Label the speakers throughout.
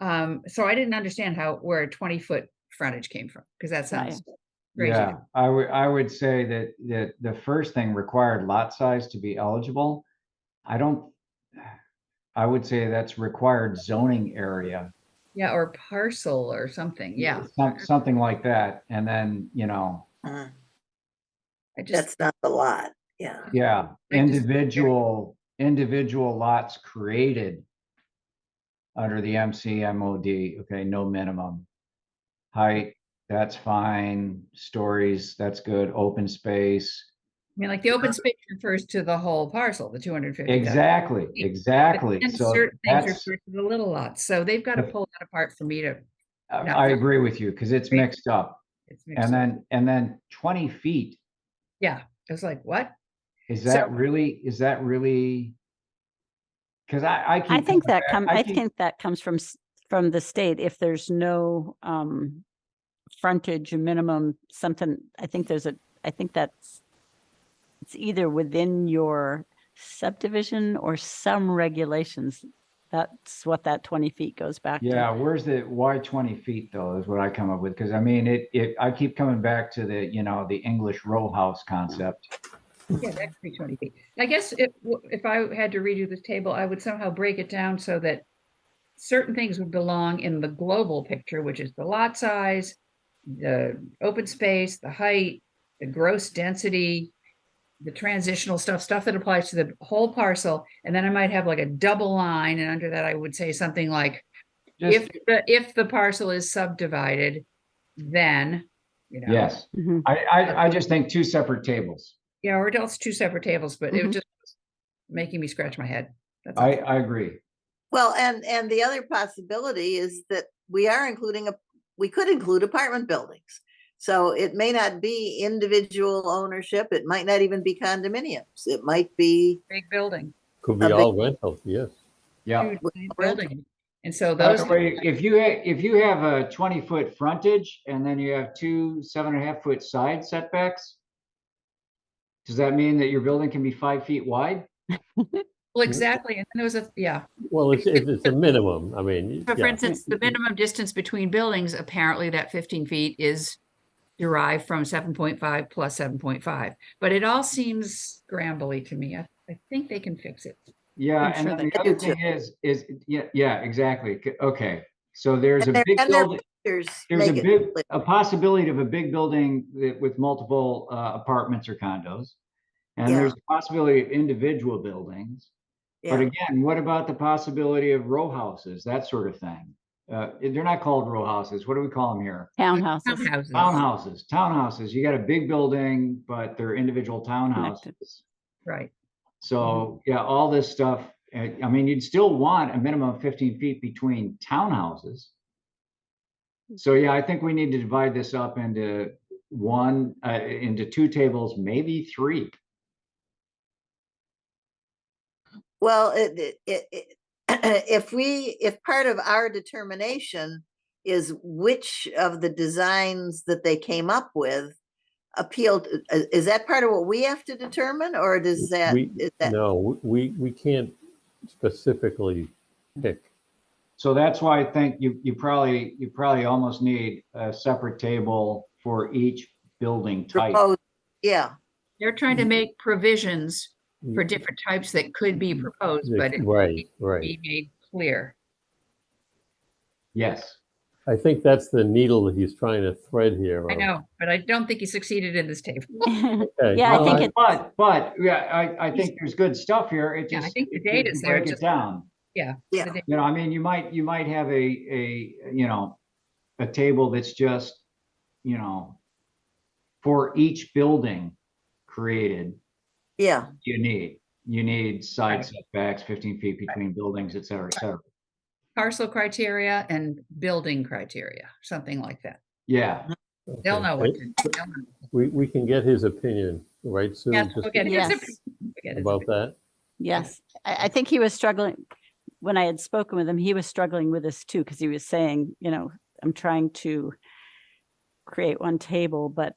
Speaker 1: Um, so I didn't understand how, where a twenty foot frontage came from, because that
Speaker 2: Right.
Speaker 1: sounds crazy. to
Speaker 3: Yeah, I would, I would say that, that the first thing required lot size to be eligible. I don't, I would say that's required zoning area.
Speaker 1: Yeah, or parcel or something, yeah.
Speaker 3: some- Something like that. And then, you know,
Speaker 4: Uh,
Speaker 1: I just,
Speaker 4: That's not the lot, yeah.
Speaker 3: yeah,
Speaker 1: I just-
Speaker 3: individual, individual lots created under the MCMOD, okay, no minimum. Height, that's fine. Stories, that's good. Open space.
Speaker 1: I mean, like the open space refers to the whole parcel, the two hundred fifty.
Speaker 3: Exactly, exactly.
Speaker 1: And
Speaker 3: So
Speaker 1: certain things
Speaker 3: that's.
Speaker 1: refer to the little lots, so they've got to pull that apart for me to,
Speaker 3: I
Speaker 1: No.
Speaker 3: uh, I agree with you, because it's
Speaker 1: Right.
Speaker 3: mixed up.
Speaker 1: it's mixed
Speaker 3: And
Speaker 1: up.
Speaker 3: then, and then twenty feet,
Speaker 1: Yeah, it was like, what?
Speaker 3: is
Speaker 1: So-
Speaker 3: that really, is that really? Because I, I keep.
Speaker 2: I think
Speaker 3: coming
Speaker 2: that
Speaker 3: back-
Speaker 2: come, I
Speaker 3: keep-
Speaker 2: think that comes from, s- from the state. If there's no, um, frontage minimum, something, I think there's a, I think that's, it's either within your subdivision or some regulations. That's what that 20 feet goes back to.
Speaker 3: Yeah, where's the, why twenty feet though, is what I come up with, because I mean, it, it, I keep coming back to the, you know, the English row house concept.
Speaker 1: Yeah, that could be twenty feet. I guess if, w- if I had to redo this table, I would somehow break it down so that certain things would belong in the global picture, which is the lot size, the open space, the height, the gross density, the transitional stuff, stuff that applies to the whole parcel. And then I might have like a double line, and under that I would say something like, if,
Speaker 3: Just,
Speaker 1: the if the parcel is subdivided, then, you know.
Speaker 3: yes,
Speaker 2: Mhm.
Speaker 3: I, I, I just think two separate tables.
Speaker 1: Yeah, or else two separate tables, but it
Speaker 5: Mm-hmm.
Speaker 2: Mhm.
Speaker 1: was just making me scratch my head. That's all.
Speaker 3: I, I agree.
Speaker 4: Well, and, and the other possibility is that we are including a, we could include apartment buildings. So it may not be individual ownership, it might not even be condominiums, it might be,
Speaker 1: Big building,
Speaker 5: Could
Speaker 4: A
Speaker 5: be
Speaker 4: big-
Speaker 5: all rental, yes.
Speaker 3: Yeah.
Speaker 1: huge building. And so
Speaker 3: By
Speaker 1: those,
Speaker 3: the way, if you, ha- if you have a twenty foot frontage and then you have two seven and a half foot side setbacks. Does that mean that your building can be five feet wide?
Speaker 1: well, exactly. And then there was a, yeah.
Speaker 5: Well, it's, it's it's a minimum, I mean,
Speaker 1: But for
Speaker 5: yeah,
Speaker 1: instance, the minimum distance between buildings, apparently that fifteen feet is derived from seven point five plus seven point five. But it all seems scrambly to me. I, I think they can fix it.
Speaker 3: Yeah,
Speaker 2: I'm
Speaker 3: and
Speaker 2: sure
Speaker 3: then
Speaker 2: they
Speaker 3: the
Speaker 4: could
Speaker 3: other
Speaker 4: do
Speaker 3: thing is, is, yeah, yeah, exactly. C- Okay, so there's a
Speaker 4: And there-
Speaker 3: big
Speaker 4: and there-
Speaker 3: building,
Speaker 4: there's.
Speaker 3: there's a big, a possibility of a big building that with multiple uh, apartments or condos. And
Speaker 4: Yeah.
Speaker 3: there's a possibility of individual buildings. But again, what about the possibility of row houses, that sort of thing? Uh, they're not called row houses. What do we call them here?
Speaker 2: Townhouses.
Speaker 1: Townhouses,
Speaker 3: Townhouses, townhouses. You got a big building, but they're individual
Speaker 2: Connected.
Speaker 3: townhouses.
Speaker 1: right.
Speaker 3: So, yeah, all this stuff, uh, I mean, you'd still want a minimum of fifteen feet between townhouses. So, yeah, I think we need to divide this up into one, uh, into two tables, maybe three.
Speaker 4: Well, it, it- it, it, if we, if part of our determination is which of the designs that they came up with appealed, i- is that part of what we have to determine, or does that?
Speaker 5: We-
Speaker 4: is that-
Speaker 5: no, we, we can't specifically pick.
Speaker 3: So that's why I think you, you probably, you probably almost need a separate table for each building type.
Speaker 4: proposed- Yeah,
Speaker 1: They're trying
Speaker 5: Mm-hmm.
Speaker 1: to make provisions for
Speaker 5: Mm,
Speaker 1: different types that could be proposed,
Speaker 5: the-
Speaker 1: but it
Speaker 5: Mm-hmm. Right,
Speaker 1: be
Speaker 5: right.
Speaker 1: made clear.
Speaker 3: Yes,
Speaker 5: I think that's the needle that he's trying to thread here.
Speaker 1: I
Speaker 5: on.
Speaker 1: know, but I don't think he succeeded in this table.
Speaker 5: Okay,
Speaker 2: Yeah, I
Speaker 5: well,
Speaker 2: think it-
Speaker 3: but, but, yeah, I, I think there's good stuff here. It
Speaker 1: Yeah, I
Speaker 3: just.
Speaker 1: think the
Speaker 3: if you-
Speaker 1: data's
Speaker 3: if you
Speaker 1: there,
Speaker 3: Break it
Speaker 1: just-
Speaker 3: down.
Speaker 4: yeah.
Speaker 1: But they-
Speaker 3: You know, I mean, you might, you might have a, a, you know, a table that's just, you know, for each building created,
Speaker 4: Yeah,
Speaker 3: you need, you need
Speaker 1: Right.
Speaker 3: side setbacks, fifteen feet between buildings, et cetera, et cetera.
Speaker 1: Parcel criteria and building criteria, something like that.
Speaker 3: Yeah,
Speaker 1: They'll
Speaker 5: okay.
Speaker 1: know what to, they'll know.
Speaker 5: We, we can get his opinion, right, Sue?
Speaker 1: Yeah,
Speaker 5: just
Speaker 1: okay, it's a-
Speaker 2: Yes.
Speaker 1: okay, it's a-
Speaker 5: About that?
Speaker 2: Yes, I, I think he was struggling, when I had spoken with him, he was struggling with this too, because he was saying, you know, I'm trying to create one table, but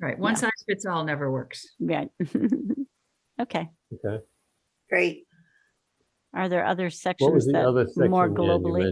Speaker 1: Right, one
Speaker 2: yeah.
Speaker 1: size fits all never works.
Speaker 2: yeah. Okay,
Speaker 5: Okay.
Speaker 4: great.
Speaker 2: are there other
Speaker 5: What was
Speaker 2: sections
Speaker 5: the
Speaker 2: that
Speaker 5: other section?
Speaker 2: more
Speaker 5: Ann, you
Speaker 2: globally?